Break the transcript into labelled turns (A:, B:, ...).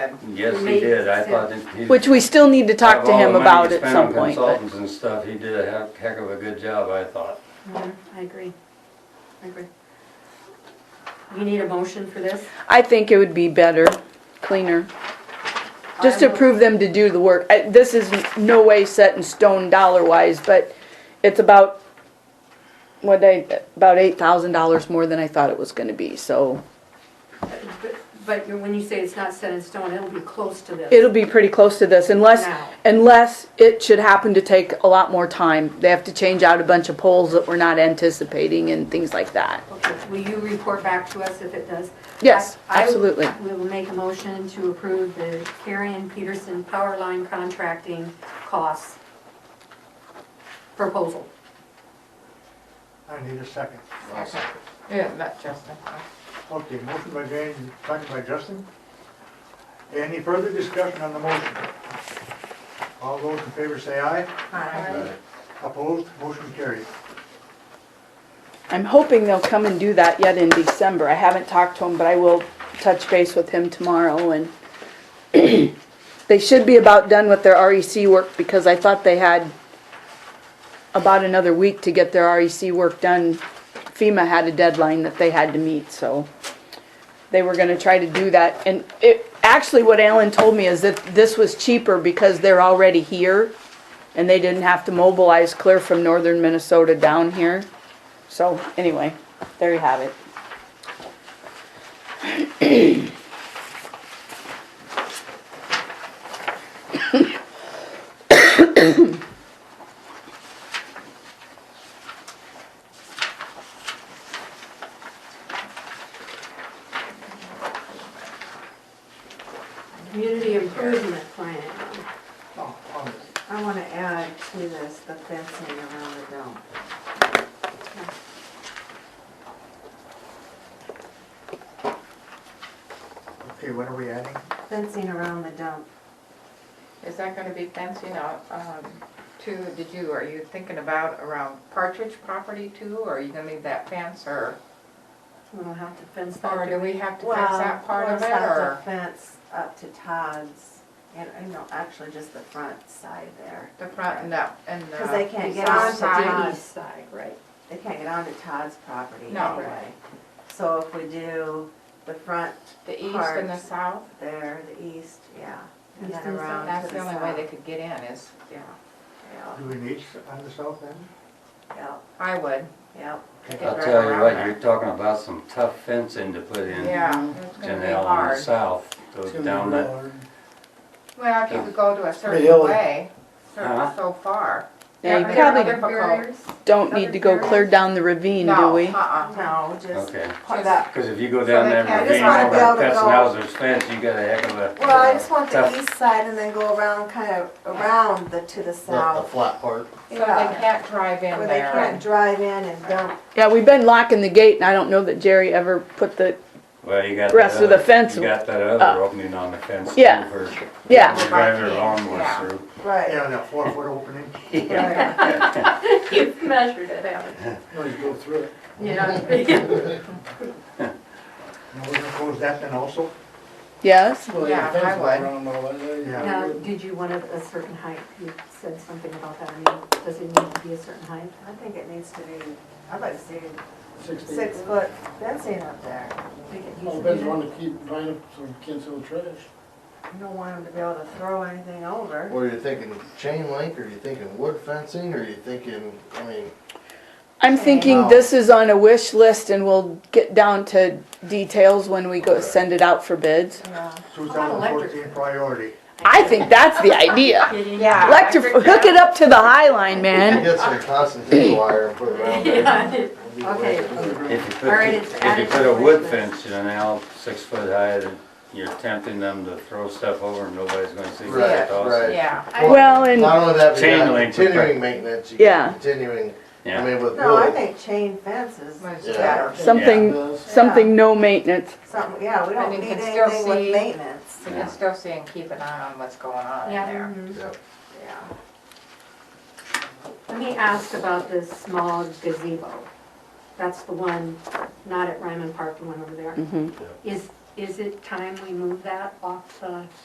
A: Yes, he did, I thought that he.
B: Which we still need to talk to him about at some point,
A: Spent on
B: but
A: consultants and stuff, he did a heck- heck of a good job, I thought.
C: Mhm, I agree, I agree. You need a motion for this?
B: I think it would be better, cleaner. Just
C: I
B: to
C: will-
B: prove them to do the work. I- This is no way set in stone dollar-wise, but it's about, what I, about eight thousand dollars more than I thought it was gonna be, so
C: But- But you- when you say it's not set in stone, it'll be close to this.
B: it'll be pretty close to this unless,
C: Now.
B: unless it should happen to take a lot more time. They have to change out a bunch of poles that we're not anticipating and things like that.
C: Okay, will you report back to us if it does?
B: Yes,
C: I- I-
B: absolutely.
C: We will make a motion to approve the Carrion Peterson Power Line Contracting Costs Proposal.
D: I need a second.
E: Yeah, not Justin.
D: Okay, motion by Jane, second by Justin. Any further discussion on the motion? All those in favor say aye. Opposed, motion carried.
B: I'm hoping they'll come and do that yet in December. I haven't talked to him, but I will touch base with him tomorrow and they should be about done with their REC work because I thought they had about another week to get their REC work done. FEMA had a deadline that they had to meet, so they were gonna try to do that. And it, actually what Alan told me is that this was cheaper because they're already here and they didn't have to mobilize clear from northern Minnesota down here. So anyway, there you have it.
C: Community Improvement Plan.
D: Oh, oh.
F: I want to add to this the fencing around the dome.
D: Okay, what are we adding?
F: Fencing around the dump.
E: Is that gonna be fencing out, um, to, did you, are you thinking about around Partridge property too? Or are you gonna leave that fence or,
C: We'll have to fence that.
E: or do we have to fence
F: Well,
E: that part
F: we'll
E: of it
F: have to
E: or
F: Fence up to Todd's, and, you know, actually just the front side there.
E: the front and the, and the.
F: 'Cause they can't get
E: south
F: onto
E: side?
F: the-
C: East side, right?
F: They can't get onto Todd's property
E: No.
F: anyway. So if we do the front
E: The east and the
F: Parts.
E: south?
F: there, the east, yeah, and
C: East
F: then
C: and south.
F: around
E: That's
F: to
E: the only
F: south.
E: way they could get in is, yeah,
F: Yeah,
D: Do we need s- on the south end?
F: yeah,
E: I would.
F: yeah.
D: Okay.
E: Yeah.
A: I'll tell you what, you're talking about some tough fencing to put in.
E: Yeah, it's gonna be
A: Janelle on the
E: hard.
A: south, goes down that,
E: Well, if you could go to a certain
D: hilly.
E: way, certain
A: Huh?
E: so far.
B: Now, you
E: Are there
B: probably
E: other barriers?
B: don't need to go clear down the ravine, do
E: No,
B: we?
E: uh-uh.
F: No, just
A: okay.
F: part that.
A: Cause if you go
E: So
A: down
E: they
A: that
E: can't- I just
A: ravine
F: wanna be able
A: over
F: to
A: past
F: go-
A: Nowser's fence, you got a heck of a.
F: Well, I just want
A: tough-
F: the east side and then go around, kind of around the, to the
G: The, the
F: south.
G: flat part.
E: So they can't drive in
F: Where they
E: there.
F: can't drive in and dump
B: Yeah, we've been locking the gate and I don't know that Jerry ever put the,
A: Well, you got that
B: Rest of the
A: other-
B: fence
A: You got that
B: up.
A: other opening on the fence too
B: Yeah.
A: for.
B: Yeah.
A: for Driving their lawnmowers
E: Yeah.
A: through.
F: Right.
D: Yeah, that four foot opening.
F: right.
C: You've measured it out.
D: No, you go through it.
C: Yeah.
D: And we're gonna close that then also?
B: yes?
E: Yeah, I would.
C: Now, did you want it a certain height? You said something about that. I mean, does it need to be a certain height?
F: I think it needs to be, I'd like to see six foot fencing up there.
C: Make it
H: Well,
C: easy.
H: Ben's wanting to keep drying up so we can't sell the trash.
F: You don't want them to be able to throw anything over.
G: Or you're thinking chain link, or you're thinking wood fencing, or you're thinking, I mean,
B: I'm thinking this is on a wish list and we'll get down to details when we go send it out for bids.
F: Yeah.
D: Two thousand fourteen priority.
B: I think that's the idea.
C: Kidding.
E: Yeah.
B: Electric, hook it up to the High Line,
G: you
B: man.
G: get some constantine wire and put it around there.
C: Yeah.
G: It'd be
C: Okay.
G: way to do it.
A: If you put,
C: Alright, it's
A: if you
C: added
A: put
C: to
A: a
C: the
A: wood
C: list.
A: fence, you know, six foot high, then you're tempting them to throw stuff over and nobody's gonna see what
G: Right,
A: it's all.
G: right.
E: Yeah.
B: Well, and,
G: Not only that, but you
A: Chain
G: have
A: link.
G: continuing maintenance, you
B: Yeah.
G: got continuing, I
A: Yeah,
G: mean, with
F: No, I
G: wood,
F: think chain fences,
E: Was
G: Yeah.
E: better.
B: something,
H: Does.
B: something no maintenance.
F: something, yeah, we don't
E: And you
F: need
E: can still
F: anything with
E: see-
F: maintenance.
E: We can still see and keep an eye on what's going on in
C: Yeah.
E: there.
G: yeah.
E: Yeah.
C: Let me ask about this small gazebo. That's the one, not at Ryman Park, the one over there.
B: Mhm.
C: Is, Is it time we move that off the